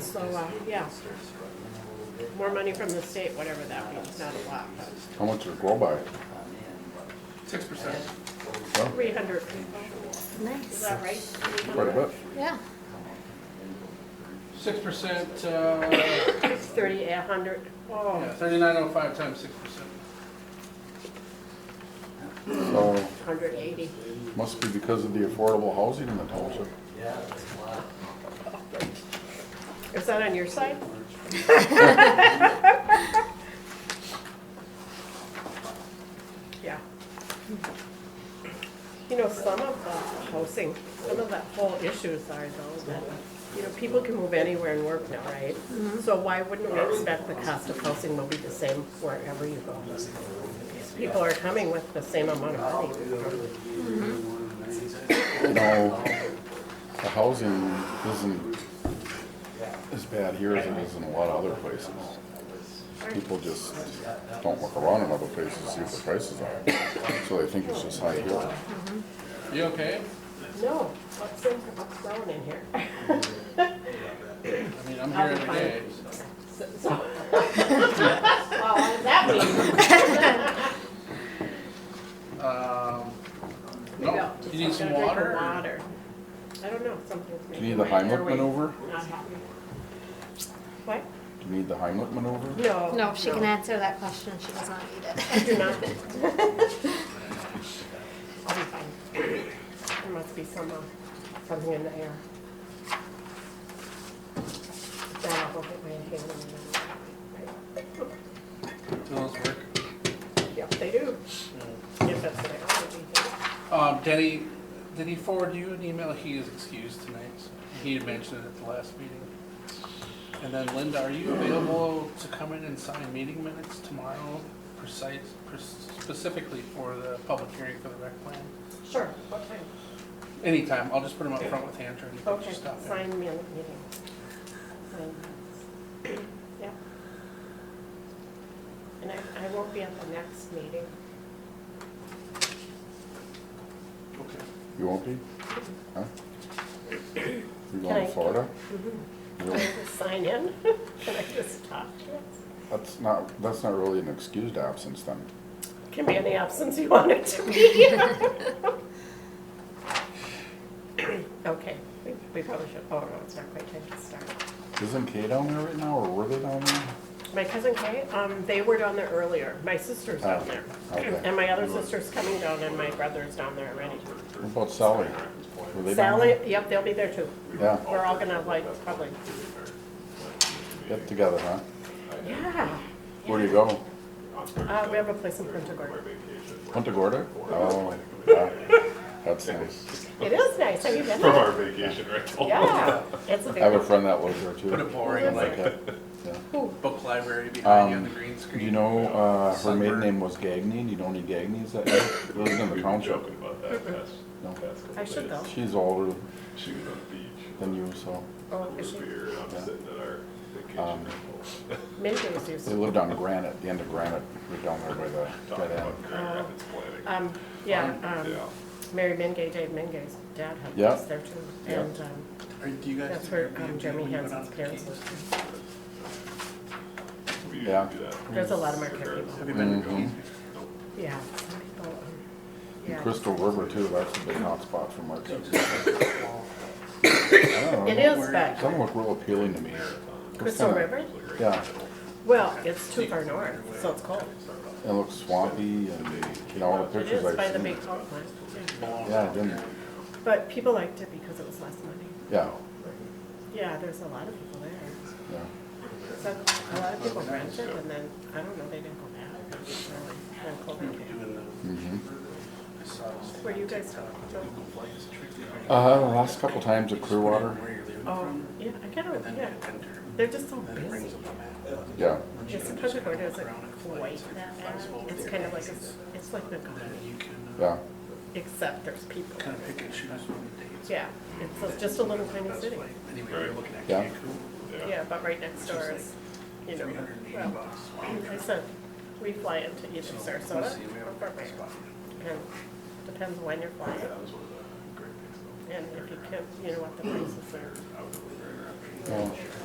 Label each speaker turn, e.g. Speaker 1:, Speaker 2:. Speaker 1: so, uh, yeah. More money from the state, whatever that means, not a lot, but
Speaker 2: How much does it grow by?
Speaker 3: Six percent.
Speaker 2: Well,
Speaker 1: three hundred people, is
Speaker 4: Nice.
Speaker 1: that right?
Speaker 2: Quite a bit.
Speaker 4: Yeah.
Speaker 3: Six percent, uh,
Speaker 1: It's Thirty, a hundred, oh,
Speaker 3: thirty-nine oh five times six percent.
Speaker 2: So,
Speaker 1: hundred eighty.
Speaker 2: must be because of the affordable housing in the township.
Speaker 1: Is that on your side? Yeah. You know, some of the housing, some of the whole issues are though that, you know, people can move anywhere and work now, right? So why wouldn't we expect the cost of housing will be the same wherever you go? People are coming with the same amount of money.
Speaker 2: You know, the housing isn't as bad here as it is in a lot of other places. People just don't look around in other places to see what the prices are. So they think it's just high here.
Speaker 3: You okay?
Speaker 1: No, what's in, what's thrown in here?
Speaker 3: I mean, I'm here every day, so.
Speaker 1: So, so- Well, what does that mean?
Speaker 3: Um,
Speaker 1: Maybe
Speaker 3: no,
Speaker 1: I'll
Speaker 3: you need
Speaker 1: just- I'm
Speaker 3: some
Speaker 1: gonna drink
Speaker 3: water? or-
Speaker 1: Water. I don't know, something's
Speaker 2: Do
Speaker 1: making.
Speaker 2: you need the
Speaker 1: my
Speaker 2: Heimlich
Speaker 1: airway
Speaker 2: maneuver?
Speaker 1: Not happy. What?
Speaker 2: Do you need the Heimlich maneuver?
Speaker 1: No.
Speaker 4: No, she can answer that question. She does not need
Speaker 1: I
Speaker 4: it.
Speaker 1: do not. I'll be fine. There must be some, uh, something in the air. Then I'll go get my inhaler.
Speaker 3: Do those work?
Speaker 1: Yep, they do.
Speaker 3: Mm.
Speaker 1: If that's what I want to do.
Speaker 3: Um, Denny, did he forward you an email? He is excused tonight. so He had mentioned it at the last meeting. And then Linda, are you available to come in and sign meeting minutes tomorrow precise, pres- specifically for the public hearing for the rec plan?
Speaker 1: Sure, what time?
Speaker 3: Anytime, I'll just put them up front with Hunter and you can
Speaker 1: Okay,
Speaker 3: just stop in.
Speaker 1: sign me on the meeting. Sign. Yeah. And I, I won't be at the next meeting.
Speaker 3: Okay.
Speaker 2: You won't be? Huh? You
Speaker 1: Can I-
Speaker 2: going to Florida?
Speaker 1: Can
Speaker 2: Really?
Speaker 1: I just sign in? Can I just talk?
Speaker 2: That's not, that's not really an excused absence then.
Speaker 1: Can be any absence you want it to be. Okay, we we probably should, oh, no, it's not quite time to start.
Speaker 2: Isn't Kay down there right now, or were they down there?
Speaker 1: My cousin Kate, um, they were down there earlier. My sister's down there.
Speaker 2: Oh, okay.
Speaker 1: And my other sister's coming down and my brother's down there already.
Speaker 2: What about Sally? Were they down
Speaker 1: Sally,
Speaker 2: there?
Speaker 1: yep, they'll be there too.
Speaker 2: Yeah,
Speaker 1: We're all gonna like, probably,
Speaker 2: get together, huh?
Speaker 1: yeah.
Speaker 2: Where do you go?
Speaker 1: Uh, we have a place in Punta Gorda.
Speaker 2: Punta Gorda? Oh, yeah, that's nice.
Speaker 1: It is nice, have you been
Speaker 5: from
Speaker 1: there?
Speaker 5: our vacation rental.
Speaker 1: Yeah, it's a
Speaker 2: I have a
Speaker 1: very,
Speaker 2: friend that lives there
Speaker 3: Put a
Speaker 2: too.
Speaker 3: boring, like,
Speaker 2: Okay, yeah.
Speaker 3: book library behind you on the
Speaker 2: Um,
Speaker 3: green screen.
Speaker 2: Do you know, uh, her maiden name was Gagny? Do you know any Gagnys that live lives in the
Speaker 5: We've been
Speaker 2: township?
Speaker 5: joking about that past,
Speaker 2: No.
Speaker 5: past couple
Speaker 1: Mm-hmm. I should
Speaker 5: days.
Speaker 1: though.
Speaker 2: She's older
Speaker 5: She was on the beach,
Speaker 2: than you, so.
Speaker 1: oh, is
Speaker 5: with
Speaker 1: she?
Speaker 5: a beer, and
Speaker 2: Yeah.
Speaker 5: I'm sitting at our
Speaker 2: Um,
Speaker 5: vacation rental.
Speaker 1: Mindy's used
Speaker 2: They
Speaker 1: to.
Speaker 2: lived on Granite, the end of Granite, right down there by the, by
Speaker 5: Talking
Speaker 2: the end.
Speaker 5: about Grand
Speaker 1: Oh.
Speaker 5: Rapids planning.
Speaker 1: Um, yeah,
Speaker 5: Yeah.
Speaker 1: um, Mary Mingay, Dave Mingay's dad had
Speaker 2: Yeah.
Speaker 1: a place there too.
Speaker 2: Yeah.
Speaker 1: And, um,
Speaker 3: Are, do you guys?
Speaker 1: that's
Speaker 3: do
Speaker 1: where
Speaker 3: Airbnb
Speaker 1: um,
Speaker 3: when
Speaker 1: Jeremy
Speaker 3: you go down
Speaker 1: Hansen's
Speaker 3: to the
Speaker 1: parents
Speaker 3: Keys?
Speaker 1: lived.
Speaker 5: So we usually
Speaker 2: yeah.
Speaker 5: do that.
Speaker 1: There's a lot of Marquette people.
Speaker 3: Have you been to the
Speaker 2: Mm-hmm.
Speaker 3: Keys?
Speaker 1: Yeah, some people, um,
Speaker 2: And
Speaker 1: yeah.
Speaker 2: Crystal River too, that's a big hotspot for markets.
Speaker 1: It is, but
Speaker 2: Some look real appealing to me.
Speaker 1: Crystal
Speaker 2: kinda-
Speaker 1: River,
Speaker 2: Yeah,
Speaker 1: well, it's too far north, so it's cold.
Speaker 2: it looks swampy and, you know, all the
Speaker 1: It
Speaker 2: pictures
Speaker 1: is by
Speaker 2: I've
Speaker 1: the
Speaker 2: seen.
Speaker 1: big power plant.
Speaker 2: Yeah, it didn't,
Speaker 1: But people liked it because it was less money.
Speaker 2: yeah,
Speaker 1: Yeah, there's a lot of people there.
Speaker 2: yeah.
Speaker 1: So a lot of people rented and then, I don't know, they didn't go back. really, when COVID came.
Speaker 2: mhm.
Speaker 1: Where you guys go?
Speaker 2: Uh, the last couple times at Clearwater,
Speaker 1: Oh, yeah, I kind of, yeah, they're just so busy.
Speaker 2: yeah,
Speaker 1: Yes, in Punta Gorda isn't quite that bad. It's kind of like, a- it's like the Gulf,
Speaker 3: You can
Speaker 2: yeah.
Speaker 3: uh,
Speaker 1: except there's people.
Speaker 3: kind of pick and choose when the dates.
Speaker 1: Yeah, it's a- just a little tiny
Speaker 3: That's
Speaker 1: city.
Speaker 3: like, Anyway, we're looking at
Speaker 2: Yeah.
Speaker 3: Cancun,
Speaker 1: Yeah, but right next door is, you know,
Speaker 3: three hundred and eighty
Speaker 1: well,
Speaker 3: bucks.
Speaker 1: I said, we fly into either
Speaker 3: So,
Speaker 1: Sarasota
Speaker 3: let's see, we have
Speaker 1: or
Speaker 3: a
Speaker 1: Fort Myers.
Speaker 3: spot.
Speaker 1: And depends when you're flying
Speaker 5: That was one of the great things
Speaker 1: and if you can, you know what the prices are.
Speaker 5: though. I was over there.
Speaker 2: Well,